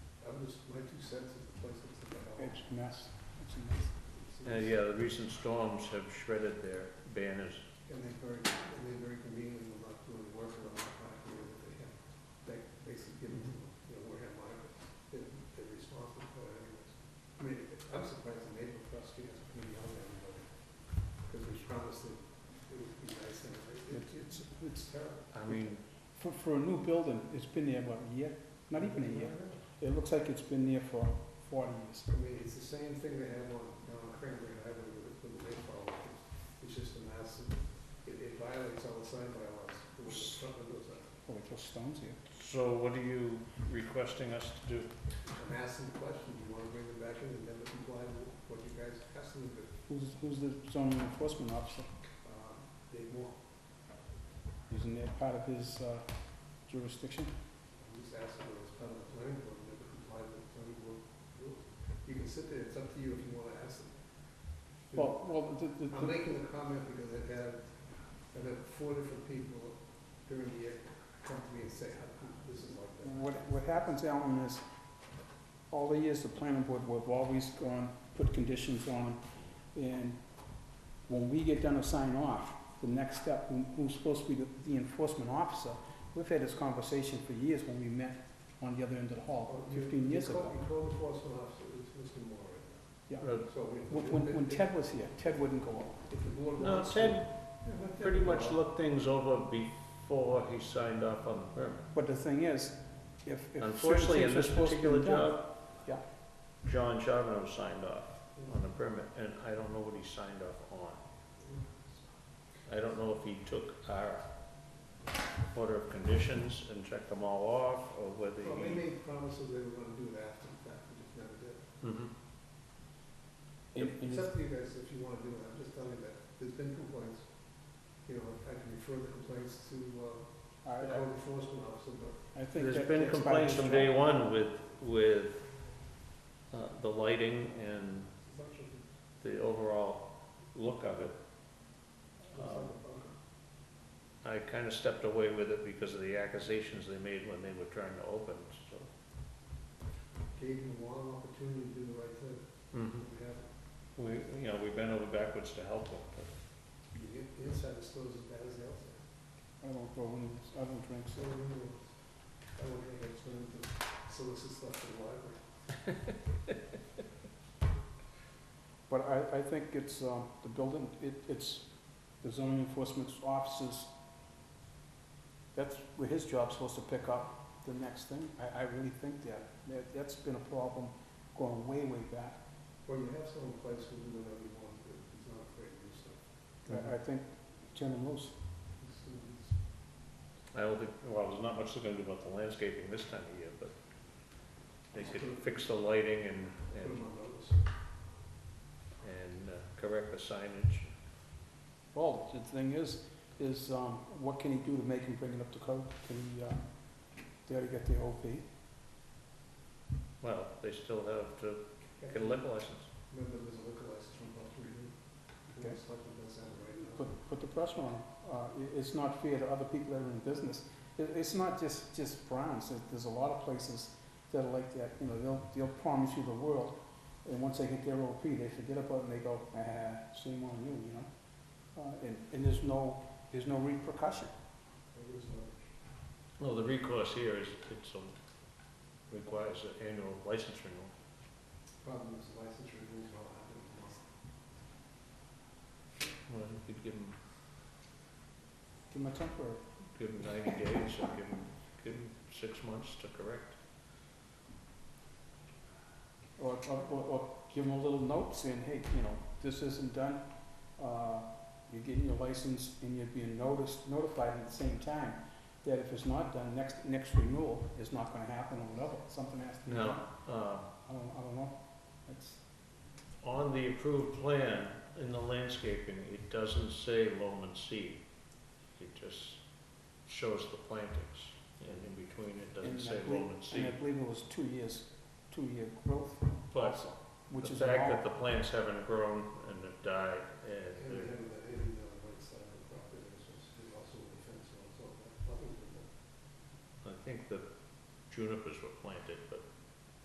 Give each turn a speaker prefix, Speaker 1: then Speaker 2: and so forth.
Speaker 1: just my two cents is the place that's in the
Speaker 2: It's
Speaker 1: hall.
Speaker 2: a mess. It's a mess.
Speaker 1: It's-
Speaker 3: Uh, yeah, the recent storms have shredded their banners.
Speaker 1: And they very, and they very conveniently will not do any work around the clock here that they have, they basically give them, to, you know, Wareham Library. They're, they're responsible for it anyways. I mean, I'm surprised the neighborhood across the street hasn't been yelling at anybody. Because we promised that it would be nice and it- it, it's, it's terrible.
Speaker 3: I mean,
Speaker 2: For, for a new building, it's been there about a year, not even a year. It looks like it's been there for forty years.
Speaker 1: I mean, it's the same thing they have on, on Cranberry Highway with, with the rainfall. It's just a massive, it, it violates all the sign bylaws. the way the front windows are.
Speaker 2: Oh, it was stones here.
Speaker 3: so what are you requesting us to do?
Speaker 1: I'm asking questions, you wanna bring them back in and never comply with what you guys asked them to,
Speaker 2: Who's, who's the zoning enforcement officer?
Speaker 1: uh, they want.
Speaker 2: Isn't that part of his uh, jurisdiction?
Speaker 1: I'm just asking them as part of the planning board, and never comply with the planning board rules. You can sit there, it's up to you if you wanna ask them.
Speaker 2: Well, well, the, the,
Speaker 1: I'm
Speaker 2: the-
Speaker 1: making the comment because I've had, I've had four different people during the year come to me and say, how come this is like that?
Speaker 2: what, what happens, Alan, is all the years the planning board, we've always gone, put conditions on, and when we get done to sign off, the next step, who- who's supposed to be the the enforcement officer, we've had this conversation for years when we met on the other end of the hall,
Speaker 1: Oh, you-
Speaker 2: fifteen
Speaker 1: you
Speaker 2: years
Speaker 1: call-
Speaker 2: ago.
Speaker 1: You call the enforcement officer, it's Mr. Moore right now.
Speaker 2: Yeah.
Speaker 3: Uh,
Speaker 1: So we.
Speaker 2: When, when- when Ted was here, Ted wouldn't go up.
Speaker 1: If the board
Speaker 3: No,
Speaker 1: wants to-
Speaker 3: Ted
Speaker 1: Yeah, let Ted
Speaker 3: pretty
Speaker 1: go
Speaker 3: much
Speaker 1: out.
Speaker 3: looked things over before he signed off on the permit.
Speaker 2: But the thing is, if, if certain
Speaker 3: Unfortunately, in
Speaker 2: things are
Speaker 3: this
Speaker 2: supposed to be done.
Speaker 3: particular job.
Speaker 2: Yeah.
Speaker 3: John Charbonneau signed off
Speaker 1: Yeah.
Speaker 3: on the permit, and I don't know what he signed off on. I don't know if he took our order of conditions and checked them all off, or whether
Speaker 1: Well, they
Speaker 3: he.
Speaker 1: made promises they were gonna do it after the fact, they just never did.
Speaker 3: Mhm.
Speaker 2: And- and
Speaker 1: It's up to you guys if you wanna do it, I'm just telling you that, there's been complaints. You know, I can refer the complaints to, uh,
Speaker 2: I,
Speaker 1: the code enforcement officer, but
Speaker 2: I think
Speaker 3: There's
Speaker 2: that-
Speaker 3: been
Speaker 2: that's part of
Speaker 3: complaints
Speaker 2: his
Speaker 3: from
Speaker 2: job.
Speaker 3: day one with, with uh, the lighting and
Speaker 1: it's not just, it's
Speaker 3: the overall look of it.
Speaker 1: not
Speaker 3: Um,
Speaker 1: a problem.
Speaker 3: I kind of stepped away with it because of the accusations they made when they were trying to open, so.
Speaker 1: Gave them one opportunity to do the right thing,
Speaker 3: Hmm.
Speaker 1: and we have,
Speaker 3: We, you know, we bent over backwards to help them, but
Speaker 1: the in- the inside is still as bad as the outside.
Speaker 2: I don't go in, I don't drink,
Speaker 1: So,
Speaker 2: so.
Speaker 1: I don't know. I don't think it's going to solicit stuff for the library.
Speaker 2: But I, I think it's, um, the building, it, it's the zoning enforcement officers, that's where his job's supposed to pick up the next thing. I, I really think that, that, that's been a problem going way, way back.
Speaker 1: Well, you have someone in place who will do whatever you want, but he's not afraid to do stuff.
Speaker 2: I, I think Jen and Lou's,
Speaker 1: He's- he's-
Speaker 3: I don't think, well, there's not much they're gonna do about the landscaping this time of year, but they could fix the lighting and,
Speaker 1: Put
Speaker 3: and,
Speaker 1: him on notice.
Speaker 3: and uh, correct the signage.
Speaker 2: well, the thing is, is, um, what can he do to make him bring it up to code? Can he, uh, dare to get the OP?
Speaker 3: Well, they still have to get a liquor license.
Speaker 1: Remember, there's a liquor license from Buck Reed.
Speaker 2: Okay.
Speaker 1: It's like the best out right now.
Speaker 2: put, put the pressure on 'em. Uh, it, it's not fair to other people that are in business. It, it's not just, just Browns. There- There's a lot of places that are like that, you know, they'll, they'll promise you the world. And once they get their OP, they forget about it and they go, ah, shame on you, you know? Uh, and, and there's no, there's no repercussion.
Speaker 1: There is no-
Speaker 3: Well, the recourse here is, it's a, requires an annual license renewal.
Speaker 1: Problem is licensure rules all happen at once.
Speaker 3: Well, you could give them,
Speaker 2: Give them a temporary.
Speaker 3: give 'em ninety days, or give them, give 'em six months to correct.
Speaker 2: Or, or, or- or give them a little note saying, hey, you know, this isn't done, uh, you're getting your license and you're being noticed, notified at the same time, that if it's not done, next, next renewal is not gonna happen or whatever, something has to be done.
Speaker 3: No, uh,
Speaker 2: I don't, I don't know, it's,
Speaker 3: on the approved plan, in the landscaping, it doesn't say loam and seed. It just shows the plantings, and in between it doesn't
Speaker 2: And I
Speaker 3: say
Speaker 2: believe-
Speaker 3: loam and
Speaker 2: and I
Speaker 3: seed.
Speaker 2: believe it was two years, two-year growth
Speaker 3: But
Speaker 2: also,
Speaker 3: the
Speaker 2: which is a
Speaker 3: fact that
Speaker 2: lot.
Speaker 3: the plants haven't grown and have died,
Speaker 1: And
Speaker 3: and
Speaker 1: we
Speaker 3: they're,
Speaker 1: have that area on the right side of the property, which is is also a fence, so it's all, nothing's been done.
Speaker 3: I think the junipers were planted, but